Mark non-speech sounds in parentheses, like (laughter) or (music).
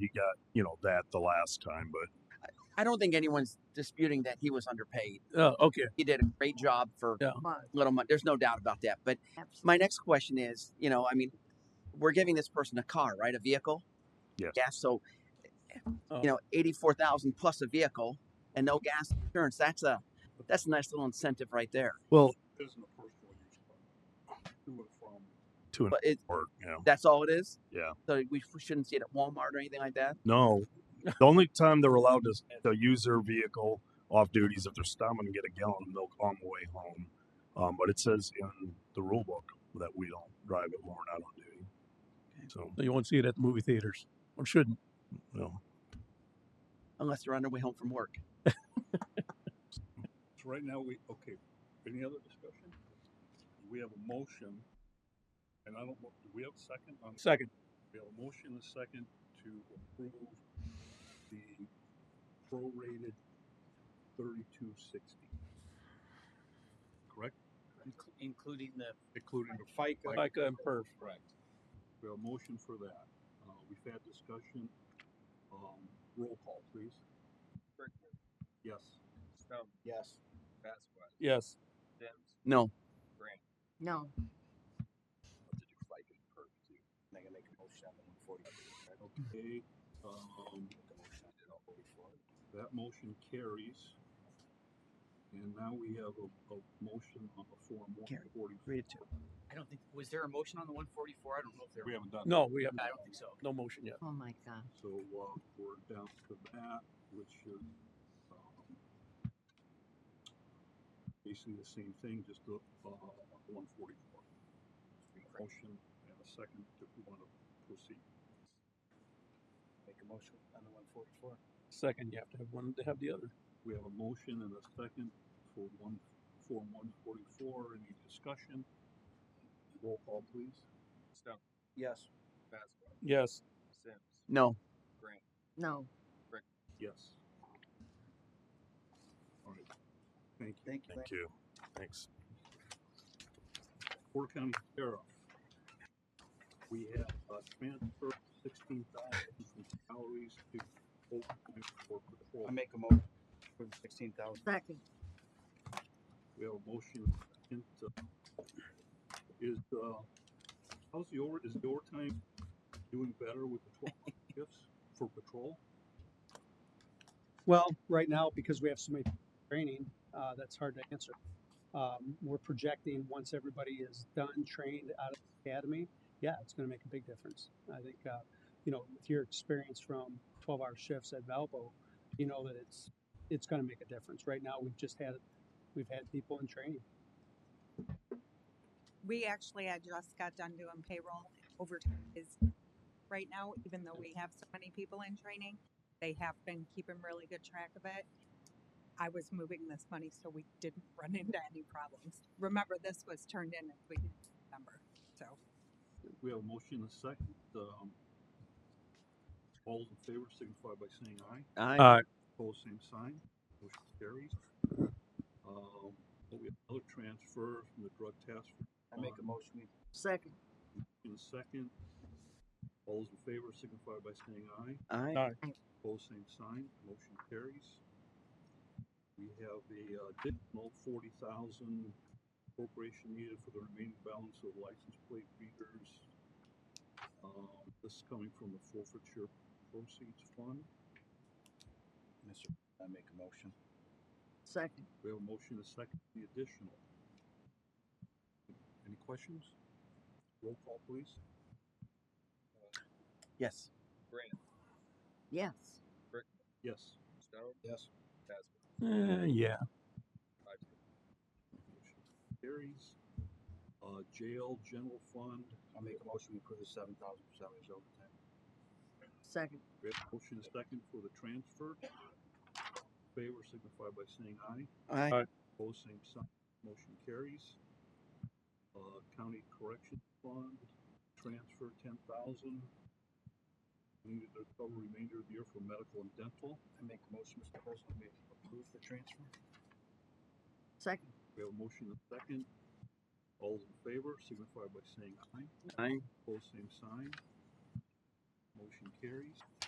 he got you know that the last time, but I don't think anyone's disputing that he was underpaid. Oh, okay. He did a great job for Yeah. But little money. There's no doubt about that. But my next question is, you know, I mean, we're giving this person a car, right? A vehicle. Yes. Gas. So, Oh. you know, eighty-four thousand plus a vehicle and no gas insurance. That's a that's a nice little incentive right there. well, Isn't a personal use car. To and from. two and But it, four, you know, that's all it is. Yeah. So we we shouldn't see it at Walmart or anything like that. no. The only time they're allowed (laughs) to, to use their vehicle off duty is if they're stopping to get a gallon of milk on the way home. Um, but it says in the rule book that we don't drive it when we're not on duty. So, So you won't see it at the movie theaters or shouldn't. no, Unless they're on their way home from work. So right now, we, okay, any other discussion? We have a motion, and I don't, know- do we have a second on? Second. We have a motion and a second to approve the prorated thirty-two sixty. Correct? including the Including the FICA. FICA and PERF. Correct. We have a motion for that. Uh, we've had discussion. Um, roll call, please. Yes. Stone, Yes. Vasquez, Yes. Sims, No. Grant. no, I gotta make a motion on the one forty. Okay, um, that motion carries. And now we have a, a motion on the Form one Carry. forty. Read it to I don't think, was there a motion on the one forty-four? I don't know if there. We haven't done. No, we haven't. I don't think so. No motion yet. oh my gosh. So, uh, we're down to that, which is, um, basically the same thing, just the, uh, one forty-four. Motion and a second if we want to proceed. Make a motion on the one forty-four. Second, you have to have one to have the other. We have a motion and a second for one, for one forty-four. Any discussion? Roll call, please. Stone, Yes. Vasquez, Yes. Sims, No. Grant, No, Yes. All right. Thank you. Thank you. Thank you. Thanks. Porter County Sheriff. We have uh, transfer sixteen thousand from salaries to overtime for patrol. I make a motion for the sixteen thousand. second, We have a motion. and, uh, Is, uh, how's the over, is the overtime doing better with the twelve shifts for patrol? Well, right now, because we have so many training, uh, that's hard to answer. Um, we're projecting once everybody is done, trained out of the academy, yeah, it's going to make a big difference. I think, uh, you know, with your experience from 12 hour shifts at Valpo, you know that it's it's going to make a difference. Right now, we've just had we've had people in training. We actually, I just got done doing payroll overtime is right now, even though we have so many people in training, they have been keeping really good track of it. I was moving this money so we didn't (laughs) run into any problems. Remember, this was turned in at the beginning of December, so. We have a motion and a second. Um, all in favor signify by saying aye. I Uh, Pose same sign, motion carries. Um, we have another transfer from the drug task force I make a motion, we second, in a second. All those in favor signify by saying aye. I Pose same sign, motion carries. We have the uh, additional forty thousand appropriation needed for the remaining balance of license plate readers. Um, this is coming from the forfeiture proceeds fund. Mr. I make a motion. second. We have a motion to second the additional. Any questions? Roll call, please. Yes. Grant, Yes, Yes. Stone, Yes. Vasquez, eh, yeah. five zero. Motion Carries. Uh, jail general fund, I make a motion, we approve the seven thousand for salaries overtime. second, we have a motion to second for the transfer. Favor signify by saying aye. I Opposed, same sign. Motion carries. Uh, county correction fund, transfer ten thousand. Needed to cover remainder of the year for medical and dental. I make a motion, Mr. President, we approve the transfer. second, We have a motion and a second. All those in favor signify by saying aye. I Opposed, same sign. Motion carries.